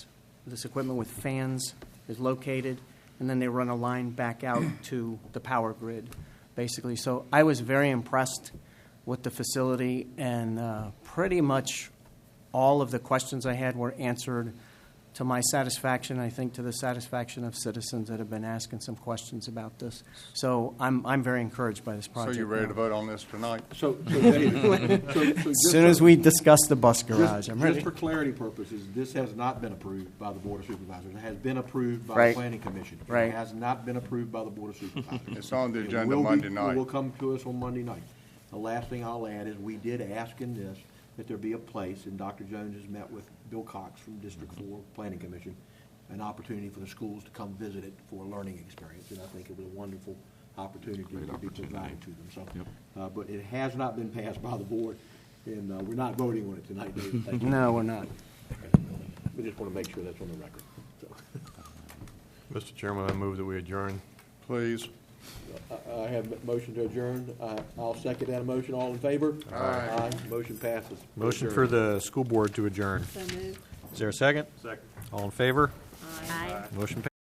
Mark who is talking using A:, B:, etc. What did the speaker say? A: this equipment with fans is located, and then they run a line back out to the power grid, basically. So I was very impressed with the facility, and uh, pretty much all of the questions I had were answered to my satisfaction, I think to the satisfaction of citizens that have been asking some questions about this. So I'm, I'm very encouraged by this
B: So
A: project.
B: you ready
A: now.
B: to vote on this tonight?
C: So, so David, so- so just
A: As soon as
C: for-
A: we discuss the bus garage,
C: just-
A: I'm
C: Just
A: ready.
C: for clarity purposes, this has not been approved by the Board of Supervisors. It has been approved by
A: Right.
C: the Planning Commission.
A: Right.
C: It has not been approved by the Board of Supervisors.
B: It's on the
C: It
B: agenda
C: will be-
B: Monday
C: It will
B: night.
C: come to us on Monday night. The last thing I'll add is, we did ask in this that there be a place, and Dr. Jones has met with Bill Cox from District Four Planning Commission, an opportunity for the schools to come visit it for a learning experience, and I think it was a wonderful opportunity to be provided to them, so. Uh, but it has not been passed by the board, and, uh, we're not voting on it tonight, David, thank you.
A: No, we're not.
C: We just want to make sure that's on the record, so.
D: Mr. Chairman, I move that we adjourn.
B: Please.
C: I I have a motion to adjourn. I- I'll second that motion. All in favor?
B: Aye.
C: Motion passes.
D: Motion for the school board to adjourn.
E: So moved.
D: Is there a second? Second. All in favor?
E: Aye.
D: Motion